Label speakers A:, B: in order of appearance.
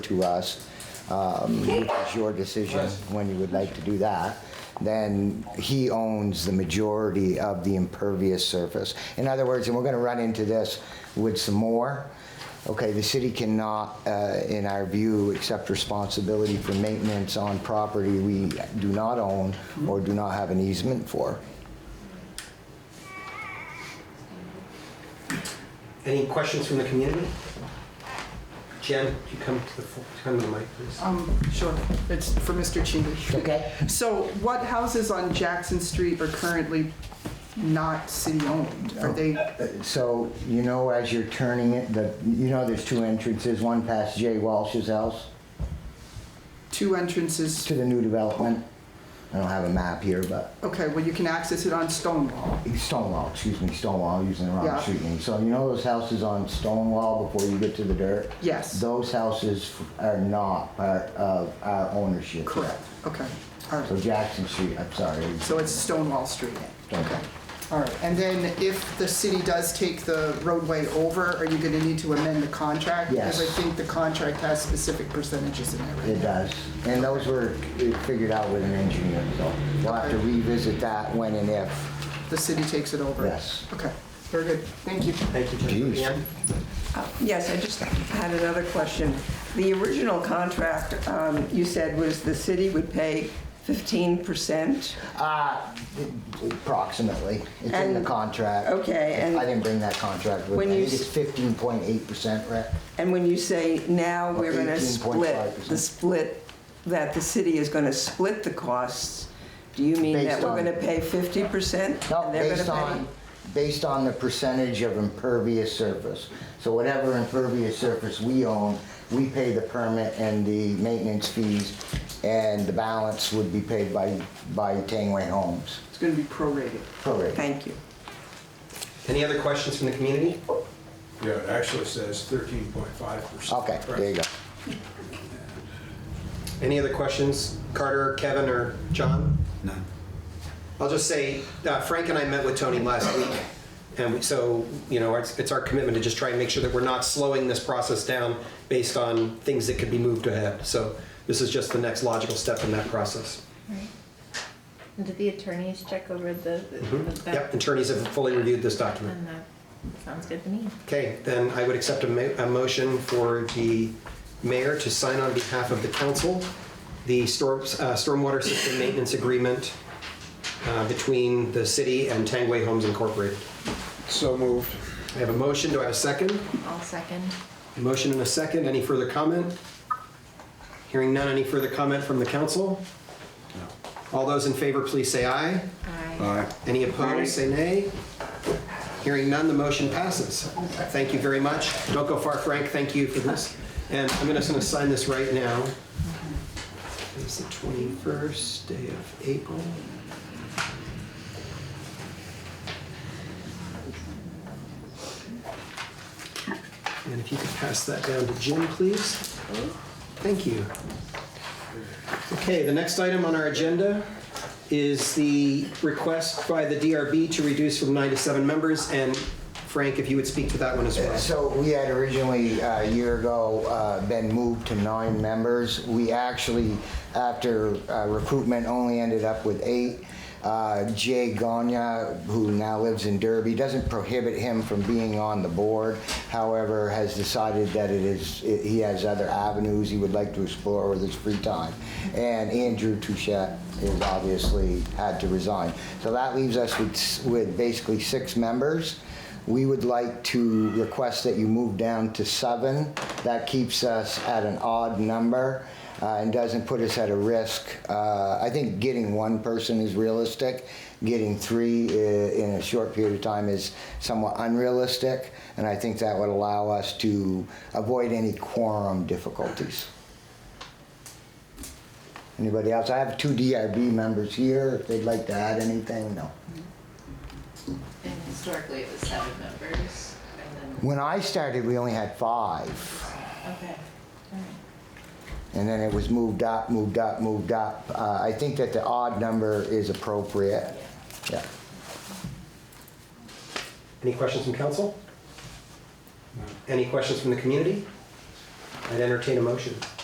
A: to us, um, which is your decision when you would like to do that, then he owns the majority of the impervious surface. In other words, and we're going to run into this with some more, okay, the city cannot, uh, in our view, accept responsibility for maintenance on property we do not own or do not have an easement for.
B: Any questions from the community? Jen, could you come to the, fo- come to the mic, please?
C: Um, sure, it's for Mr. Cheney.
A: Okay.
C: So what houses on Jackson Street are currently not city-owned? Are they,
A: Uh, So, you know, as you're turning it, the, you know, there's two entrances, one past Jay Walsh's house.
C: two entrances?
A: to the new development. I don't have a map here, but
C: Okay, well, you can access it on Stonewall.
A: Stonewall, excuse me, Stonewall, using the wrong
C: Yeah.
A: street name. So you know those houses on Stonewall before you get to the dirt?
C: Yes.
A: Those houses are not part of our ownership.
C: Correct, okay, all
A: So
C: right.
A: Jackson Street, I'm sorry.
C: So it's Stonewall Street.
A: Okay.
C: All right, and then if the city does take the roadway over, are you gonna need to amend the contract?
A: Yes.
C: Because I think the contract has specific percentages in
A: It
C: there, right?
A: does. And those were figured out with an engineer, so we'll have to
C: Okay.
A: revisit that when and if.
C: The city takes it over?
A: Yes.
C: Okay, very good, thank you.
B: Thank you, Jen.
A: Jeez.
B: Jan?
D: Uh, Yes, I just had another question. The original contract, um, you said, was the city would pay 15%?
A: Uh, approximately. It's in the
D: And-
A: contract.
D: okay, and-
A: I didn't bring that contract with
D: When
A: me. I
D: you
A: think it's
D: s-
A: fifteen point eight percent, Rick.
D: And when you say now we're going to split,
A: 18.5%.
D: the split, that the city is going to split the costs, do you mean
A: Based
D: that we're
A: on-
D: going to pay 50%?
A: No,
D: and they're gonna
A: based
D: pay-
A: on, based on the percentage of impervious surface. So whatever impervious surface we own, we pay the permit and the maintenance fees, and the balance would be paid by, by Tangway Homes.
C: It's gonna be prorated.
A: Correct.
D: Thank you.
B: Any other questions from the community?
E: Yeah, it actually says thirteen point five percent.
A: Okay, there you go.
B: Any other questions, Carter, Kevin, or John?
E: None.
B: I'll just say, uh, Frank and I met with Tony last week, and we- so, you know, it's, it's our commitment to just try and make sure that we're not slowing this process down based on things that could be moved ahead. So this is just the next logical step in that process.
F: Right. And did the attorneys check over the? the- the back-
B: Mm-hmm. Yep, attorneys have fully reviewed this document.
F: And that sounds good to me.
B: Okay, then I would accept a ma- a motion for the mayor to sign on behalf of the council the storm- uh, stormwater system maintenance agreement uh, between the city and Tangway Homes Incorporated.
E: So moved.
B: I have a motion, do I have a second?
F: I'll second.
B: Motion and a second, any further comment? Hearing none, any further comment from the council? All those in favor, please say aye.
F: Aye.
E: Aye.
B: Any opposed, say nay. Hearing none, the motion passes. Thank you very much. Don't go far, Frank, thank you for this. And I'm gonna- just going to sign this right now. It's the 21st day of April. And if you could pass that down to Jim, please. Thank you. Okay, the next item on our agenda is the request by the DRB to reduce from nine to seven members, and Frank, if you would speak to that one as well.
A: So we had originally, uh, a year ago, uh, been moved to nine members. We actually, after uh, recruitment, only ended up with eight. Uh, Jay Gonya, who now lives in Derby, doesn't prohibit him from being on the board. However, has decided that it is, it- he has other avenues he would like to explore with his free time. And Andrew Touchette has obviously had to resign. So that leaves us with, s- with basically six members. We would like to request that you move down to seven. That keeps us at an odd number uh, and doesn't put us at a risk. Uh, I think getting one person is realistic. Getting three i- in a short period of time is somewhat unrealistic, and I think that would allow us to avoid any quorum difficulties. Anybody else? I have two DRB members here, if they'd like to add anything, no.
G: And historically, it was seven members, and
A: When I started, we only had five.
G: then, okay, all right.
A: And then it was moved up, moved up, moved up. Uh, I think that the odd number is appropriate. Yeah.
B: Any questions from council? Any questions from the community? I'd entertain a motion.